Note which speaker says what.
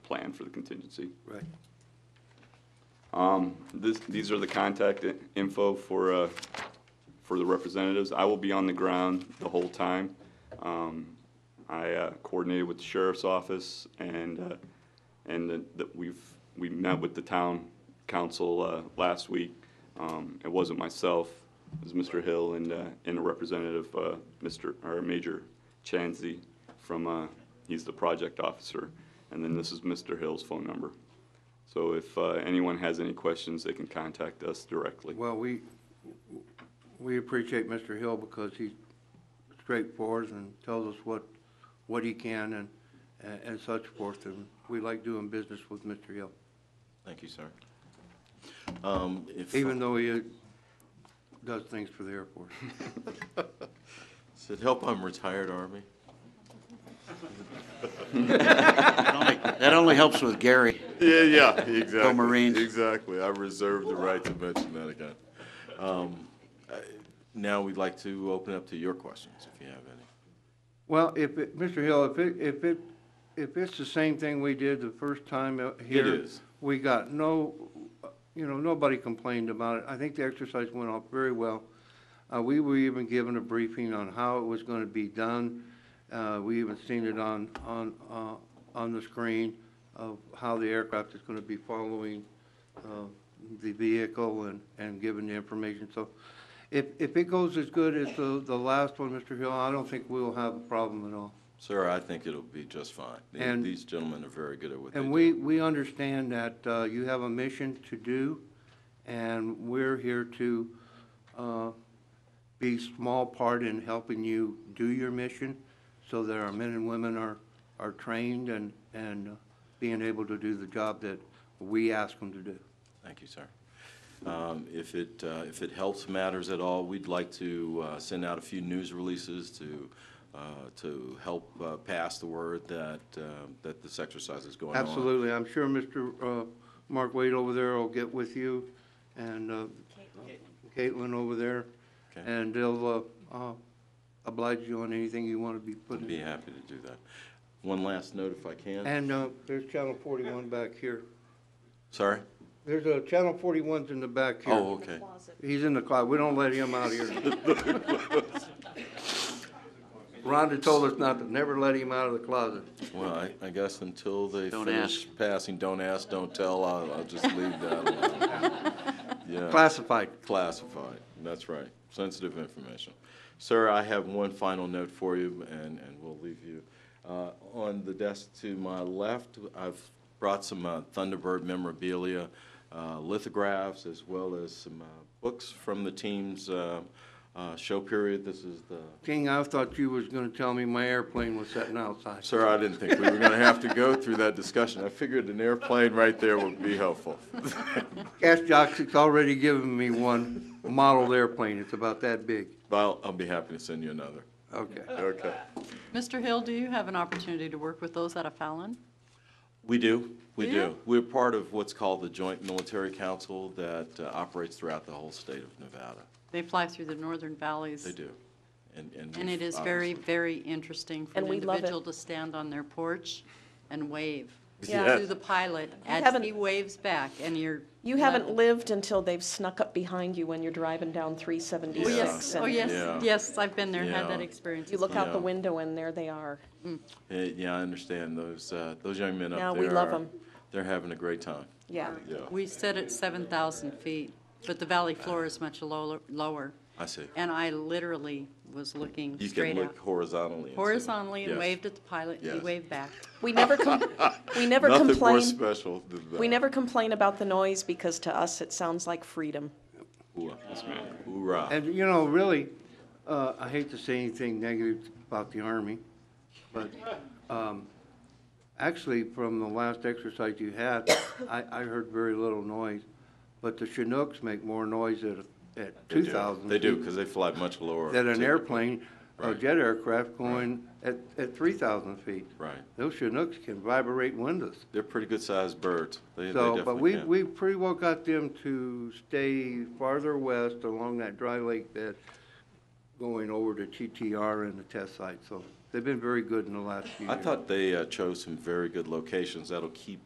Speaker 1: for the contingency.
Speaker 2: Right.
Speaker 1: Um, this, these are the contact i- info for, uh, for the representatives. I will be on the ground the whole time. Um, I uh, coordinated with the sheriff's office and, uh, and that- that we've, we met with the town council, uh, last week. Um, it wasn't myself, it was Mr. Hill and, uh, and a representative, uh, Mr., or Major Chanzi from, uh, he's the project officer. And then this is Mr. Hill's phone number. So if uh, anyone has any questions, they can contact us directly.
Speaker 2: Well, we, we appreciate Mr. Hill because he's straightforward and tells us what, what he can and, and- and such forth. And we like doing business with Mr. Hill,
Speaker 3: Thank you, sir. Um, If,
Speaker 2: even though he uh, does things for the airport.
Speaker 3: does it help I'm retired Army?
Speaker 4: That only helps with Gary.
Speaker 3: Yeah, yeah, exactly.
Speaker 4: Go Marines.
Speaker 3: Exactly. I reserve the right to mention that again. Um, I- Now, we'd like to open up to your questions, if you have any.
Speaker 2: Well, if, it- Mr. Hill, if it, if it, if it's the same thing we did the first time out here.
Speaker 3: is.
Speaker 2: We got no, you know, nobody complained about it. I think the exercise went off very well. Uh, we were even given a briefing on how it was gonna be done. Uh, we even seen it on, on, uh, on the screen of how the aircraft is gonna be following, uh, the vehicle and, and giving the information. So if, if it goes as good as the, the last one, Mr. Hill, I don't think we'll have a problem at all.
Speaker 3: Sir, I think it'll be just fine. The-
Speaker 2: And-
Speaker 3: These gentlemen are very good at what they do.
Speaker 2: And we, we understand that uh, you have a mission to do, and we're here to uh, be small part in helping you do your mission, so that our men and women are, are trained and, and uh, being able to do the job that we ask them to do.
Speaker 3: Thank you, sir. Um, If it, uh, if it helps matters at all, we'd like to uh, send out a few news releases to, uh, to help uh, pass the word that, uh, that this exercise is going on.
Speaker 2: Absolutely, I'm sure Mr. uh, Mark Wade over there will get with you, and uh, Caitlin over there,
Speaker 3: Okay.
Speaker 2: and they'll uh, uh, oblige you on anything you want to be put in.
Speaker 3: I'd be happy to do that. One last note if I can.
Speaker 2: And uh, there's Channel 41 back here.
Speaker 3: Sorry?
Speaker 2: There's a, Channel 41's in the back here.
Speaker 3: Oh, okay.
Speaker 2: He's in the closet. We don't let him out here. Rhonda told us not to, never let him out of the closet.
Speaker 3: Well, I, I guess until they
Speaker 4: Don't
Speaker 3: finish passing, don't ask, don't tell, I'll, I'll just leave that alone. Yeah,
Speaker 2: Classified.
Speaker 3: classified, that's right, sensitive information. Sir, I have one final note for you, and, and we'll leave you. Uh, on the desk to my left, I've brought some uh, Thunderbird memorabilia, uh, lithographs, as well as some, uh, books from the team's, uh, uh, show period. This is the
Speaker 2: King, I thought you was gonna tell me my airplane was sitting outside.
Speaker 3: Sir, I didn't think we were going to have to go through that discussion. I figured an airplane right there would be helpful.
Speaker 2: Gas Jock's already given me one model airplane. It's about that big.
Speaker 3: Well, I'll be happy to send you another.
Speaker 2: Okay.
Speaker 3: Okay.
Speaker 5: Mr. Hill, do you have an opportunity to work with those out of Fallon?
Speaker 3: We do, we
Speaker 5: Do
Speaker 3: do.
Speaker 5: you?
Speaker 3: We're part of what's called the Joint Military Council that uh, operates throughout the whole state of Nevada.
Speaker 5: They fly through the northern valleys.
Speaker 3: They do. And, and.
Speaker 5: And
Speaker 3: we've
Speaker 5: it is very,
Speaker 3: obviously-
Speaker 5: very interesting for
Speaker 6: And
Speaker 5: an
Speaker 6: we love it.
Speaker 5: individual to stand on their porch and wave
Speaker 6: Yeah.
Speaker 5: to the pilot as
Speaker 6: haven't-
Speaker 5: he waves back, and you're.
Speaker 6: You haven't lived until they've snuck up behind you when you're driving down
Speaker 5: Oh,
Speaker 6: 376.
Speaker 5: yes,
Speaker 6: and
Speaker 5: oh,
Speaker 3: Yeah.
Speaker 5: yes, yes, I've been there, and had
Speaker 3: Yeah.
Speaker 5: that experience.
Speaker 6: You look out the
Speaker 3: Yeah.
Speaker 6: window and there they are.
Speaker 3: Eh, Yeah, I understand. Those, uh, those young men up there.
Speaker 6: Yeah, we love
Speaker 3: are-
Speaker 6: 'em.
Speaker 3: They're having a great time.
Speaker 6: Yeah.
Speaker 3: Yeah,
Speaker 5: We sit at 7,000 feet, but the valley floor is much lo- lower.
Speaker 3: I see.
Speaker 5: And I literally was looking
Speaker 3: You can
Speaker 5: straight
Speaker 3: look
Speaker 5: out,
Speaker 3: horizontally. and see.
Speaker 5: horizontally, and
Speaker 3: Yes.
Speaker 5: waved at the pilot, and he
Speaker 3: Yes.
Speaker 5: waved back.
Speaker 6: We never, com- we never
Speaker 3: Nothing more
Speaker 6: complain,
Speaker 3: special than that.
Speaker 6: we never complain about the noise because to us it sounds like freedom.
Speaker 3: Hoorah. Hoorah.
Speaker 2: And, you know, really, uh, I hate to say anything negative about the Army, but, um, actually, from the last exercise you had, I, I heard very little noise, but the Chinooks make more noise at, at
Speaker 3: They do.
Speaker 2: two thousand.
Speaker 3: They do, because they fly much lower.
Speaker 2: Than an
Speaker 3: typically.
Speaker 2: airplane, a
Speaker 3: Right.
Speaker 2: jet aircraft going at, at three thousand feet.
Speaker 3: Right.
Speaker 2: Those Chinooks can vibrate windows.
Speaker 3: They're pretty good-sized birds. They they
Speaker 2: So, but
Speaker 3: definitely
Speaker 2: we,
Speaker 3: can.
Speaker 2: we pretty well got them to stay farther west along that dry lake bed, going over to TTR and the test site, so they've been very good in the last few
Speaker 3: I
Speaker 2: years.
Speaker 3: thought they uh, chose some very good locations that'll keep